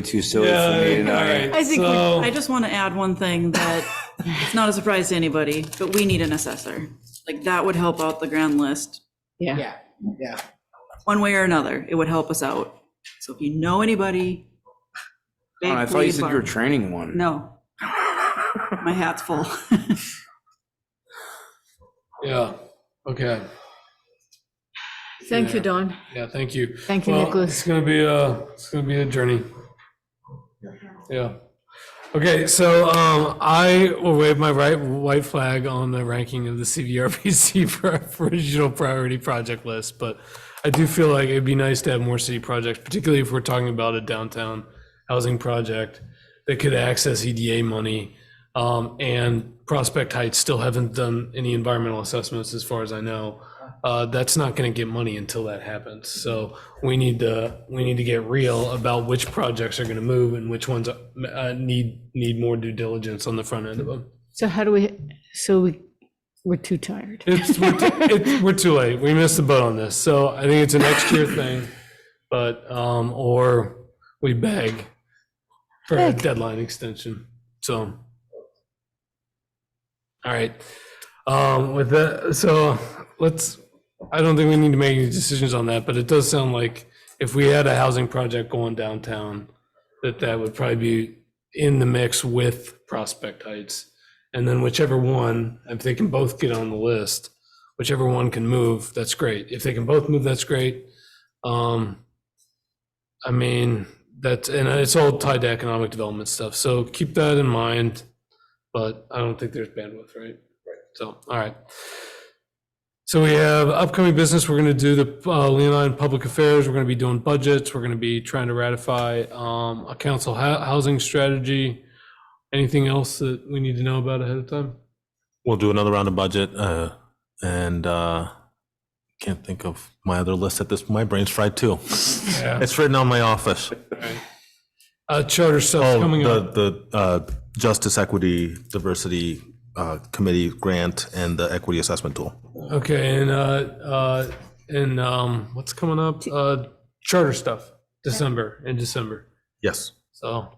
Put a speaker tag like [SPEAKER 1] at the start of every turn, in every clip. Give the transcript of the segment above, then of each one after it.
[SPEAKER 1] too silly for me tonight.
[SPEAKER 2] I think, we-
[SPEAKER 3] So-
[SPEAKER 2] I just want to add one thing that it's not a surprise to anybody, but we need an assessor. Like, that would help out the grand list,
[SPEAKER 4] Yeah.
[SPEAKER 5] Yeah, yeah.
[SPEAKER 2] one way or another. It would help us out. So if you know anybody.
[SPEAKER 1] Oh, I
[SPEAKER 2] big
[SPEAKER 1] thought you
[SPEAKER 2] lead
[SPEAKER 1] said you
[SPEAKER 2] bar-
[SPEAKER 1] were training one.
[SPEAKER 2] No. My hat's full.
[SPEAKER 3] Yeah, okay.
[SPEAKER 4] Thank you, Don.
[SPEAKER 3] Yeah, thank you.
[SPEAKER 4] Thank you,
[SPEAKER 3] Well,
[SPEAKER 4] Nicholas.
[SPEAKER 3] It's gonna be a, it's gonna be a journey. Yeah. Okay, so um, I will wave my right white flag on the ranking of the CVRPC for our original priority project list, but I do feel like it'd be nice to have more city projects, particularly if we're talking about a downtown housing project that could access EDA money. Um, and Prospect Heights still haven't done any environmental assessments, as far as I know. Uh, that's not going to get money until that happens. So we need to we need to get real about which projects are going to move and which ones uh, need need more due diligence on the front end of them.
[SPEAKER 4] So how do we, so we, we're too tired.
[SPEAKER 3] It's, we're, too, it's, we're too late. We missed the boat on this. So I think it's a next year thing, but, um, or we beg for a
[SPEAKER 4] Beg.
[SPEAKER 3] deadline extension. So. All right. Um, with that, so let's, I don't think we need to make any decisions on that, but it does sound like if we had a housing project going downtown, that that would probably be in the mix with Prospect Heights. And then whichever one, if they can both get on the list, whichever one can move, that's great. If they can both move, that's great. Um, I mean, that's, and it's all tied to economic development stuff, so keep that in mind. But I don't think there's bandwidth, right? Right. So, all right. So we have upcoming business, we're gonna do the uh, Leonine Public Affairs, we're gonna be doing budgets, we're gonna be trying to ratify um, a council hou- housing strategy. Anything else that we need to know about ahead of time?
[SPEAKER 6] We'll do another round of budget, uh, and, uh, can't think of my other list at this, my brain's fried too.
[SPEAKER 3] Yeah.
[SPEAKER 6] It's written on my office.
[SPEAKER 3] Uh, charter stuff
[SPEAKER 6] Oh,
[SPEAKER 3] coming up.
[SPEAKER 6] the, the, uh, Justice Equity Diversity, uh, Committee Grant and the Equity Assessment Tool.
[SPEAKER 3] Okay, and, uh, uh, and, um, what's coming up? Uh, charter stuff, December, in December.
[SPEAKER 6] Yes,
[SPEAKER 3] So,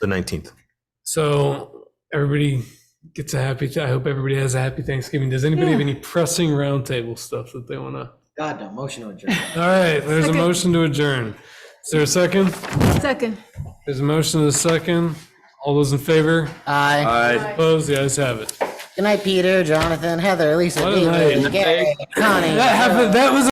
[SPEAKER 6] the nineteenth.
[SPEAKER 3] so everybody gets a happy, I hope everybody has a happy Thanksgiving. Does anybody have any pressing roundtable stuff that they want to?
[SPEAKER 5] God, no, motion to adjourn.
[SPEAKER 3] All right, there's a
[SPEAKER 4] Second.
[SPEAKER 3] motion to adjourn. Is there a second?
[SPEAKER 4] Second.
[SPEAKER 3] There's a motion and a second. All those in favor?
[SPEAKER 5] Aye.
[SPEAKER 1] I-
[SPEAKER 3] Opposed? The ayes have it.
[SPEAKER 5] Good night, Peter, Jonathan, Heather, Lisa,
[SPEAKER 3] What a
[SPEAKER 5] David,
[SPEAKER 3] night.
[SPEAKER 5] Gary, Connie.
[SPEAKER 3] That happened, that was